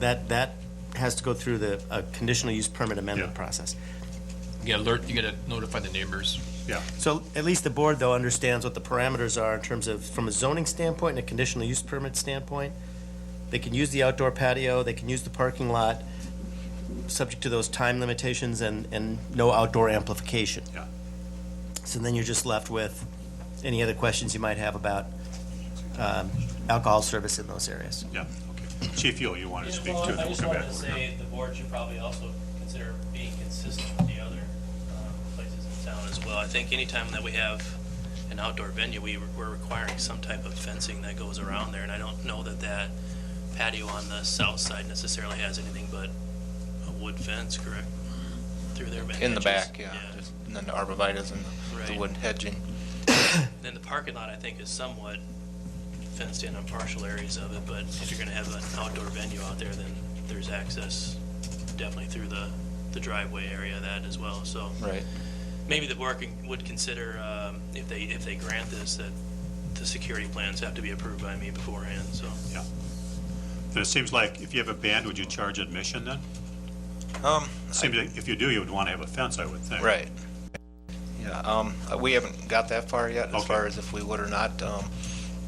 That, that has to go through the, a conditional use permit amendment Yeah. process. You gotta alert, you gotta notify the neighbors. Yeah, So at least the board, though, understands what the parameters are in terms of, from a zoning standpoint and a conditional use permit standpoint. They can use the outdoor patio, they can use the parking lot, subject to those time limitations and, and no outdoor amplification. Yeah. So then you're just left with any other questions you might have about, um, alcohol service in those areas. yeah, okay. Chief Yule, you wanted to speak too, Well, then we'll come back. I just wanted to say, the board should probably also consider being consistent with the other um, places in town as well. I think anytime that we have an outdoor venue, we, we're requiring some type of fencing that goes around there, and I don't know that that patio on the south side necessarily has anything but a wood fence, correct? Through their back Mm-hmm. In the hedges? back, yeah, just, and then the arborvitae's and the- Right. the wood hedging. Then the parking lot, I think, is somewhat fenced in on partial areas of it, but if you're gonna have an outdoor venue out there, then there's access definitely through the, the driveway area of that as well, so. Right. Maybe the board can- would consider, um, if they, if they grant this, that the security plans have to be approved by me beforehand, so. Then it seems like if you have a band, would you charge admission then? Um, Seems like if you do, you would want to have a fence, I would think. right. Yeah, um, uh, we haven't got that far yet as Okay. far as if we would or not, um,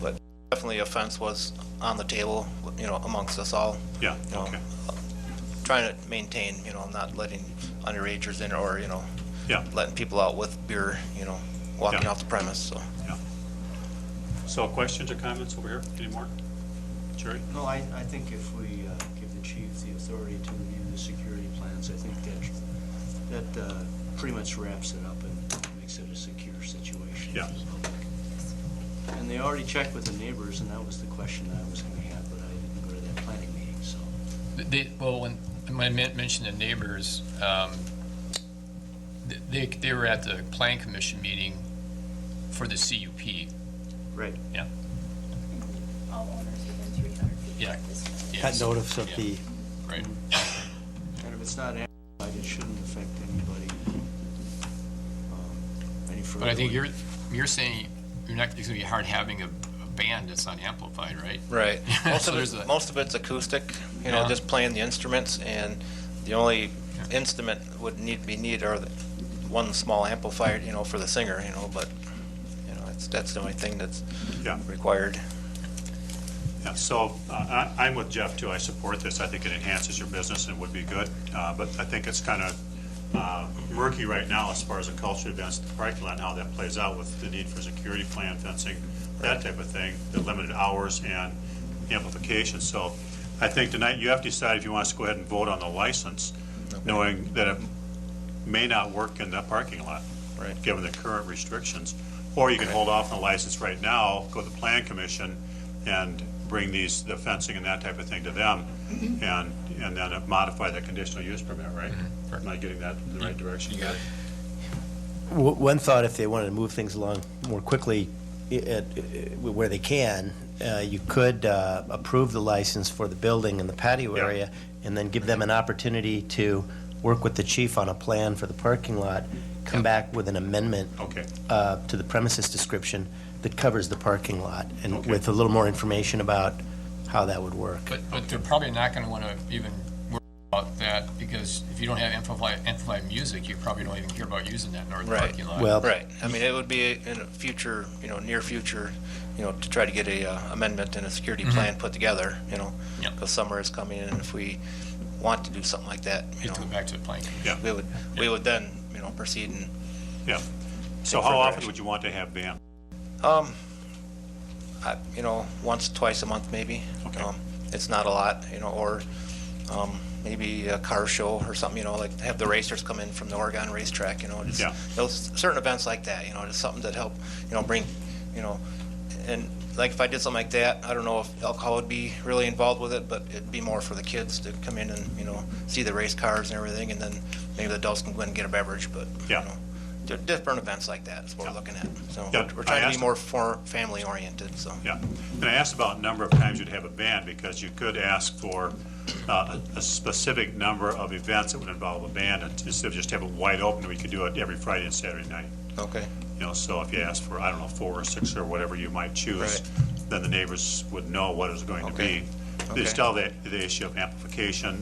but definitely a fence was on the table, you know, amongst us all, Yeah, Um, okay, trying to maintain, you know, not letting underagers in or, you know, yeah, letting people out with beer, you know, walking Yeah. off the premise, so. yeah. So questions or comments over here anymore? Jerry? No, I, I think if we uh, give the chief the authority to review the security plans, I think that, that uh, pretty much wraps it up and makes it a secure situation. Yeah. for the public. And they already checked with the neighbors, and that was the question that I was gonna have, but I didn't go to that planning meeting, so. They, well, when, when I men- mentioned the neighbors, um, th- they, they were at the plan commission meeting for the CUP. Right. All owners within three hundred feet Yeah. of this fence. Yes, notice of the- right. And if it's not amplified, it shouldn't affect anybody, um, any further. But I think you're, you're saying you're not, it's gonna be hard having a, a band that's not amplified, right? Right. Most So of there's it's, that. most of it's acoustic, you know, Yeah. just playing the instruments, and the only instrument would need to be needed are the one small amplifier, you know, for the singer, you know, but, you know, that's, that's the only thing that's Yeah. required. Yeah, so uh, I- I'm with Jeff, too. I support this. I think it enhances your business and would be good, Uh, but I think it's kind of murky right now as far as the culture events, the parking lot, and how that plays out with the need for security plan fencing, that type of thing, the limited hours and amplification. So I think tonight you have to decide if you want us to go ahead and vote on the license, knowing that it may not work in that parking lot. Right. Given the current restrictions. Or you can hold off on the license right now, go to the plan commission and bring these, the fencing and that type of thing to them. And, and then modify the conditional use permit, right? Am I getting that in the right direction? You got it. W- One thought, if they wanted to move things along more quickly, i- at- i- where they can, uh, you could uh, approve the license for the building and the patio Yeah. area, and then give them an opportunity to work with the chief on a plan for the parking lot, come back with an amendment Okay, uh, to the premises description that covers the parking lot, and Okay. with a little more information about how that would work. But, but they're probably not gonna wanna even worry about that, because if you don't have amplified, amplified music, you probably don't even care about using that north Right. parking lot. Well, Right, I mean, it would be in a future, you know, near future, you know, to try to get a uh, amendment and a security plan put together, you know? Mm-hmm. Yep. Because summer is coming, and if we want to do something like that, you You have to go know, back to the plan. commission. we would, we would then, you know, proceed and yeah. So Take how further often action. would you want to have band? Um, I, you know, once, twice a month, maybe. Okay. Um, It's not a lot, you know, or, um, maybe a car show or something, you know, like have the racers come in from the Oregon racetrack, you know, just Yeah. those certain events like that, you know, just something that help, you know, bring, you know, and like if I did something like that, I don't know if alcohol would be really involved with it, but it'd be more for the kids to come in and, you know, see the race cars and everything, and then maybe the adults can go in and get a beverage, but, you Yeah. know, di- different events like that is what we're looking at, so. Yeah, We're- We're I trying to asked- be more for, family oriented, so. Yeah, and I asked about number of times you'd have a band, because you could ask for uh, a a specific number of events that would involve a band, and instead of just have it wide open, we could do it every Friday and Saturday night. Okay. You know, so if you ask for, I don't know, four or six or whatever you might choose, Right. then the neighbors would know what it was going to Okay. be. Okay. There's still the, the issue of amplification